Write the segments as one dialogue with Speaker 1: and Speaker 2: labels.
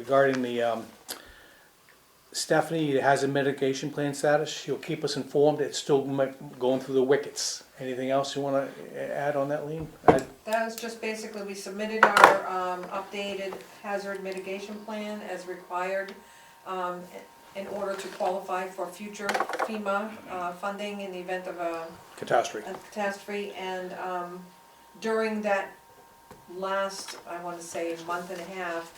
Speaker 1: regarding the, um, Stephanie has a mitigation plan status. She'll keep us informed. It's still mi- going through the wickets. Anything else you wanna add on that, Lean? Uh, I-
Speaker 2: That was just basically, we submitted our um, updated hazard mitigation plan as required um, in order to qualify for future FEMA uh, funding in the event of a
Speaker 1: Catastrophe.
Speaker 2: a catastrophe. And um, during that last, I want to say, month and a half,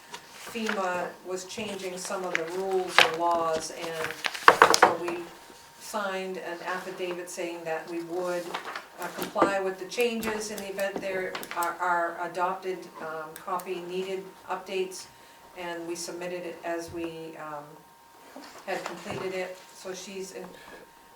Speaker 2: FEMA was changing some of the rules and laws. And so we signed an affidavit saying that we would uh, comply with the changes in the event there are- are adopted um, copy needed updates. And we submitted it as we um, had completed it. So she's in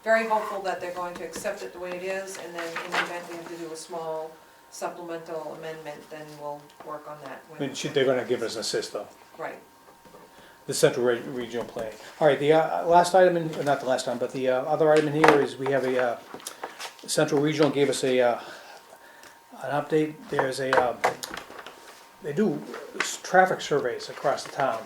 Speaker 2: very hopeful that they're going to accept it the way it is, and then in the event we have to do a small supplemental amendment, then we'll work on that.
Speaker 1: I
Speaker 2: when-
Speaker 1: mean, she- they're gonna give us an assist though.
Speaker 2: Right,
Speaker 1: The central Re- regional plan. All right, the uh, last item, in not the last time, but the uh, other item in here is we have a, uh, central regional gave us a, uh, an update. There's a, uh, they do s- traffic surveys across the town.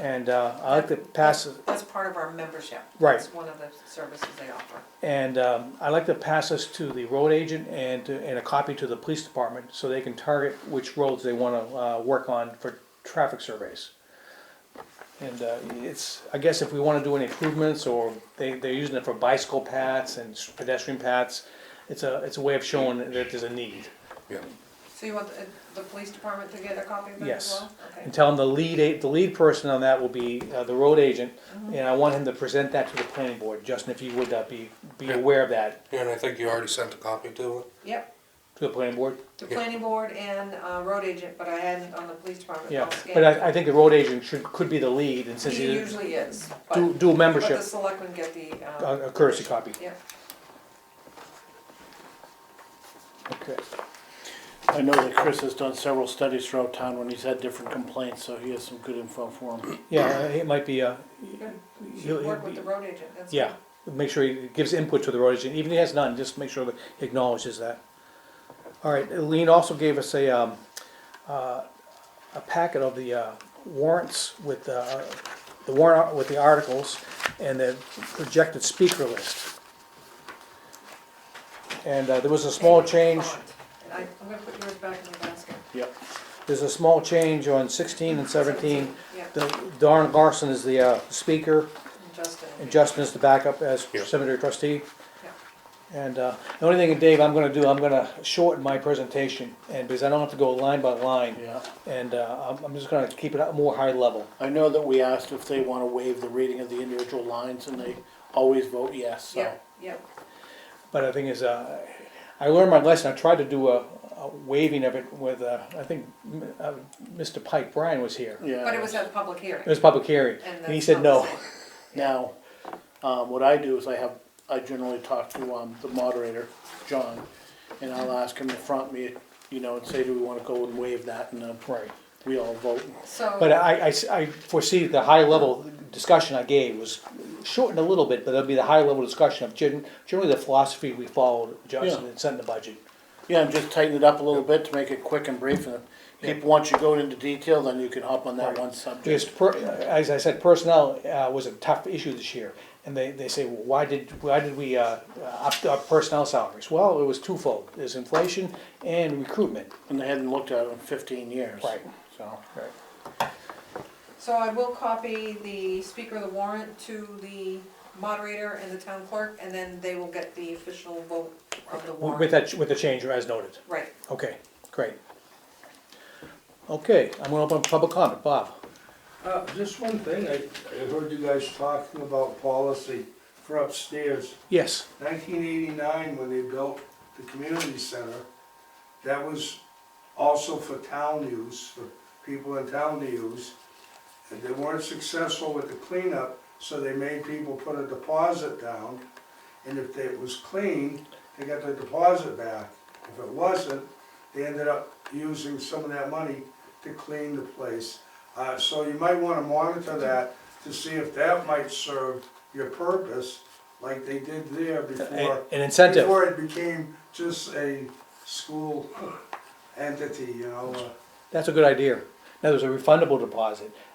Speaker 1: And uh, I like to pass,
Speaker 2: that's part of our membership.
Speaker 1: Right.
Speaker 2: It's one of the services they offer.
Speaker 1: and um, I like to pass this to the road agent and, to- and a copy to the police department so they can target which roads they wanna, uh, work on for traffic surveys. And, uh, it's, I guess if we wanna do any improvements or they, they're using it for bicycle paths and pedestrian paths, it's a, it's a way of showing that there's a need.
Speaker 3: Yeah,
Speaker 2: So you want the, the police department to get a copy of that as
Speaker 1: Yes.
Speaker 2: well? Okay.
Speaker 1: And tell them the lead, a- the lead person on that will be, uh, the road agent, and I want him to present that to the planning board. Justin, if you would, uh, be, be
Speaker 3: Yeah.
Speaker 1: aware of that
Speaker 3: and I think you already sent a copy to it.
Speaker 2: Yep,
Speaker 1: to the planning board.
Speaker 2: the
Speaker 3: Yeah.
Speaker 2: planning board and, uh, road agent, but I hadn't on the police department.
Speaker 1: Yeah,
Speaker 2: I'll scan
Speaker 1: but
Speaker 2: it.
Speaker 1: I, I think the road agent should, could be the lead, and since
Speaker 2: He
Speaker 1: he's
Speaker 2: usually is, but,
Speaker 1: dual, dual
Speaker 2: but the
Speaker 1: membership, Uh,
Speaker 2: selectmen get the,
Speaker 1: a
Speaker 2: um,
Speaker 1: a courtesy copy.
Speaker 2: yeah.
Speaker 1: Okay.
Speaker 4: I know that Chris has done several studies throughout town when he's had different complaints, so he has some good info for him.
Speaker 1: Yeah, uh, it might be, uh,
Speaker 2: Good.
Speaker 1: he'll,
Speaker 2: Should
Speaker 1: he'll
Speaker 2: work with
Speaker 1: be,
Speaker 2: the road agent, that's.
Speaker 1: yeah, make sure he gives input to the road agent, even if he has none, just make sure that he acknowledges that. All right, Lean also gave us a, um, uh, a packet of the, uh, warrants with, uh, the warrant, ar- with the articles and the projected speaker list. And, uh, there was a small change.
Speaker 2: And I, I'm gonna put yours back in the basket.
Speaker 4: Yep.
Speaker 1: There's a small change on sixteen and seventeen.
Speaker 2: Yeah,
Speaker 1: The- Darren Larson is the uh, speaker,
Speaker 2: and Justin.
Speaker 1: and Justin is the backup as
Speaker 3: Yeah.
Speaker 1: cemetery trustee. And uh, the only thing, Dave, I'm gonna do, I'm gonna shorten my presentation, and because I don't have to go line by line.
Speaker 4: Yeah.
Speaker 1: And uh, I'm, I'm just gonna keep it at more high level.
Speaker 4: I know that we asked if they wanna waive the reading of the individual lines, and they always vote yes, so.
Speaker 2: Yeah, yeah,
Speaker 1: But the thing is, uh, I learned my lesson, I tried to do a a waiving of it with, uh, I think, m- uh, Mr. Pike Bryan was here.
Speaker 4: Yeah.
Speaker 2: but it was at the public hearing.
Speaker 1: It was public hearing,
Speaker 2: and
Speaker 1: and he
Speaker 2: that's
Speaker 1: said
Speaker 2: not the
Speaker 1: no.
Speaker 2: same.
Speaker 4: Now, um, what I do is I have, I generally talk to, um, the moderator, John, and I'll ask him to front me, you know, and say, do we wanna go and waive that, and, uh,
Speaker 1: Right.
Speaker 4: we all vote.
Speaker 1: But
Speaker 2: So,
Speaker 1: I, I s- I foresee the high level discussion I gave was shortened a little bit, but it'll be the high level discussion of gen- generally the philosophy we followed, Justin,
Speaker 4: Yeah.
Speaker 1: and set in the budget.
Speaker 4: Yeah, and just tighten it up a little bit to make it quick and brief, and
Speaker 1: Yeah.
Speaker 4: people, once you go into detail, then you can hop on that
Speaker 1: Right.
Speaker 4: one subject.
Speaker 1: Because per, as I said, personnel, uh, was a tough issue this year, and they, they say, well, why did, why did we, uh, up our personnel salaries? Well, it was twofold, there's inflation and recruitment.
Speaker 4: And they hadn't looked at it in fifteen years.
Speaker 1: Right.
Speaker 4: So,
Speaker 2: so I will copy the speaker of the warrant to the moderator and the town clerk, and then they will get the official vote of the
Speaker 1: W- With
Speaker 2: warrant.
Speaker 1: that, with the change as noted,
Speaker 2: Right,
Speaker 1: okay, great. Okay, I'm gonna open up public comment, Bob.
Speaker 5: Uh, just one thing, I, I heard you guys talking about policy for upstairs.
Speaker 1: Yes,
Speaker 5: Nineteen eighty-nine, when they built the community center, that was also for town use, for people in town to use. And they weren't successful with the cleanup, so they made people put a deposit down. And if it was clean, they got their deposit back. If it wasn't, they ended up using some of that money to clean the place. Uh, so you might wanna monitor that to see if that might serve your purpose, like they did there
Speaker 1: a-
Speaker 5: before.
Speaker 1: an incentive.
Speaker 5: Before it became just a school entity, you know, uh,
Speaker 1: That's a good idea. Now, there's a refundable deposit.